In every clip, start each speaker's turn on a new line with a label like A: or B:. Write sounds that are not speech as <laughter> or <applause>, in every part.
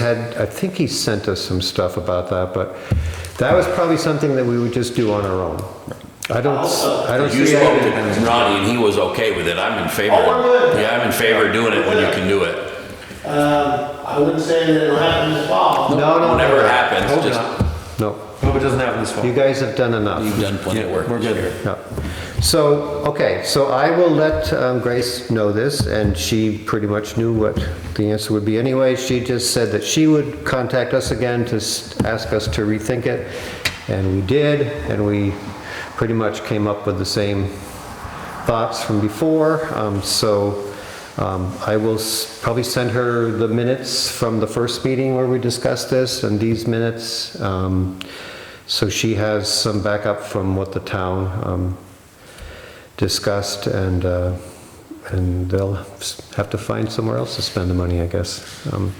A: had, I think he sent us some stuff about that, but that was probably something that we would just do on our own. I don't, s- I don't
B: You
A: see.
B: spoke
A: any-
B: to Ronnie and he was okay with it. I'm in favor.
C: Oh, we're good.
B: Yeah, I'm in favor of doing it when you can do it.
C: Um, I wouldn't say that it'll happen this fall.
A: No, no.
B: Whenever
A: no.
B: it happens,
A: Hope
B: just,
A: not. No,
D: Hope it doesn't happen this fall.
A: you guys have done enough.
B: you've done plenty of work.
D: We're
B: this
D: good.
B: year.
A: Yeah. So, okay, so I will let um, Grace know this, and she pretty much knew what the answer would be anyway. She just said that she would contact us again to s- ask us to rethink it, and we did, and we pretty much came up with the same thoughts from before. Um, So um, I will s- probably send her the minutes from the first meeting where we discussed this, and these minutes. um, so she has some backup from what the town um, discussed, and, uh, and they'll have to find somewhere else to spend the money, I guess. Um,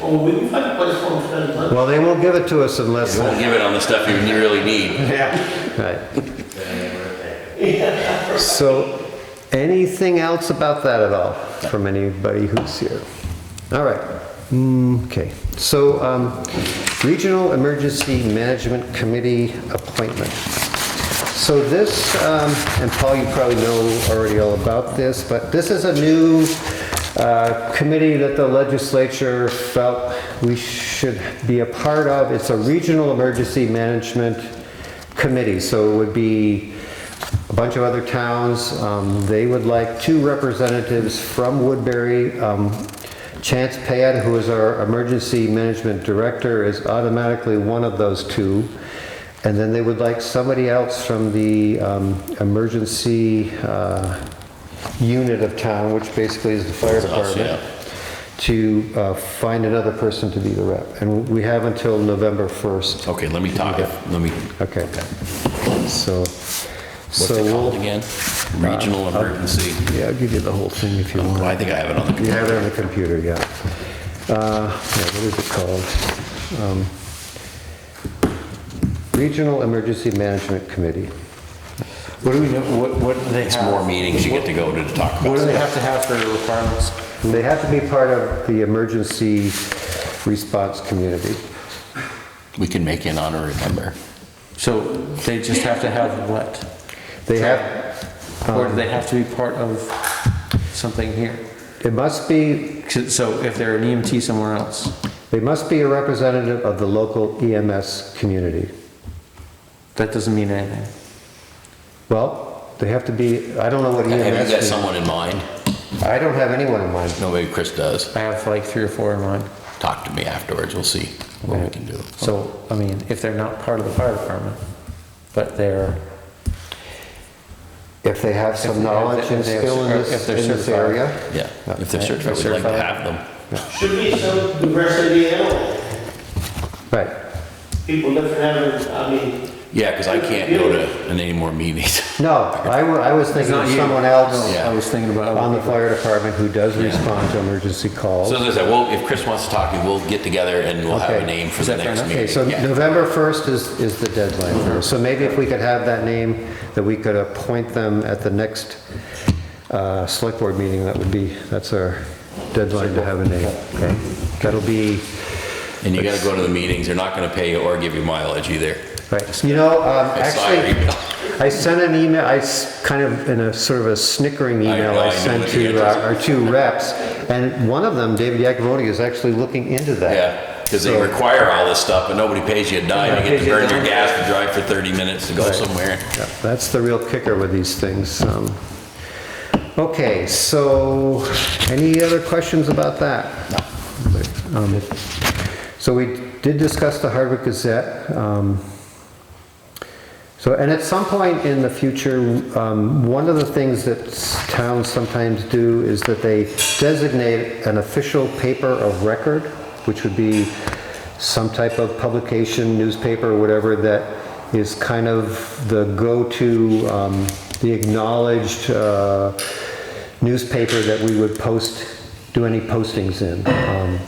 C: Well, we can find a place for them to spend money.
A: Well, they won't give it to us unless,
B: You won't give it on the stuff you really need.
D: Yeah.
A: right. So, anything else about that at all from anybody who's here? All right, Mm, okay. So, um, Regional Emergency Management Committee appointment. So this, um, and Paul, you probably know already all about this, but this is a new uh, committee that the legislature felt we should be a part of. It's a regional emergency management committee, so it would be a bunch of other towns. Um, They would like two representatives from Woodbury. Um, Chance Payette, who is our emergency management director, is automatically one of those two. And then they would like somebody else from the um, emergency uh, unit of town, which basically is the fire
B: us,
A: department, to uh, find another person to be the rep. And we have until November 1st.
B: Okay, let me talk. Let me,
A: Okay. So,
B: what's
A: so
B: it
A: we'll,
B: called again? Regional emergency.
A: yeah, I'll give you the whole thing if you want.
B: Well, I think I have it on the
A: You
B: computer.
A: have it on the computer, yeah. Uh, yeah, What is it called? Um, Regional Emergency Management Committee.
D: What do we know, what, what do they have?
B: It's more meetings you get to go to to talk
D: What
B: about.
D: do they
B: stuff.
D: have to have for requirements?
A: And They have to be part of the emergency response community.
B: We can make an honor remember.
D: So they just have to have what?
A: They have,
D: Or do they have to be part of something here?
A: it must be,
D: So if they're an EMT somewhere else,
A: they must be a representative of the local EMS community.
D: that doesn't mean anything.
A: Well, they have to be, I don't know what E
B: Have you got
A: EMS means.
B: someone in mind?
A: I don't have anyone in mind.
B: No, maybe Chris does.
D: I have like three or four in mind.
B: Talk to me afterwards. We'll see what we can do.
D: So, I mean, if they're not part of the fire department, but they're,
A: If they have
D: If
A: some
D: they have-
A: knowledge and
D: if they're
A: skill in
D: cer-
A: this,
D: if they're
A: in this
D: certified.
A: area.
B: Yeah, if they're
D: Yeah, if they're
B: certified, we'd like to
D: certified.
B: have them.
C: Should be some diversity anyway.
A: Right.
C: People different having, I mean,
B: Yeah, because I can't go to any more meetings. <laughs>
A: No, I, wa- I was thinking of
D: not you.
A: someone else
B: Yeah.
D: I was thinking about. other
A: on the
D: people.
A: fire department who does respond to emergency calls.
B: So as I said, well, if Chris wants to talk, we'll get together and we'll have
A: Okay.
B: a name for
D: Is
B: the
D: that fair
B: next
D: enough?
B: meeting.
A: Okay, so
B: Yeah. Mm-hmm.
A: November 1st is, is the deadline. for- So maybe if we could have that name, that we could appoint them at the next uh, select board meeting, that would be, that's our deadline to have a name. Okay, That'll be,
B: And you gotta go to the meetings, they're not gonna pay you or give you mileage either.
A: right, you know, um,
B: I saw your
A: actually,
B: email.
A: I sent an email, I s- kind of, in a sort of a snickering email
B: know, I
A: I
B: know
A: sent
B: what the
A: to
B: address
A: our our two reps, and one of them, David Yakavoni, is actually looking into that.
B: <laughs> Yeah, because they
A: So-
B: require all this stuff, but nobody pays you a dime, you get to
A: Nobody
B: burn
A: pays you a
B: your gas to drive for 30 minutes to go somewhere.
A: Yeah, That's the real kicker with these things. um. Okay, so any other questions about that? No. So we did discuss the Hardwick Gazette. um, So, and at some point in the future, um, one of the things that s- towns sometimes do is that they designate an official paper of record, which would be some type of publication, newspaper, whatever, that is kind of the go-to, um, the acknowledged uh, newspaper that we would post, do any postings in. Um,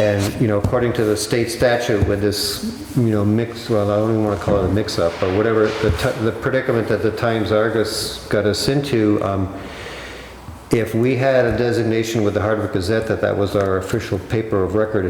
A: and, you know, according to the state statute with this, you know, mix, well, I don't even want to call it a mix-up, but whatever, the ti- the predicament that the Times Argus got us into, um, If we had a designation with the Hardwick Gazette that that was our official paper of record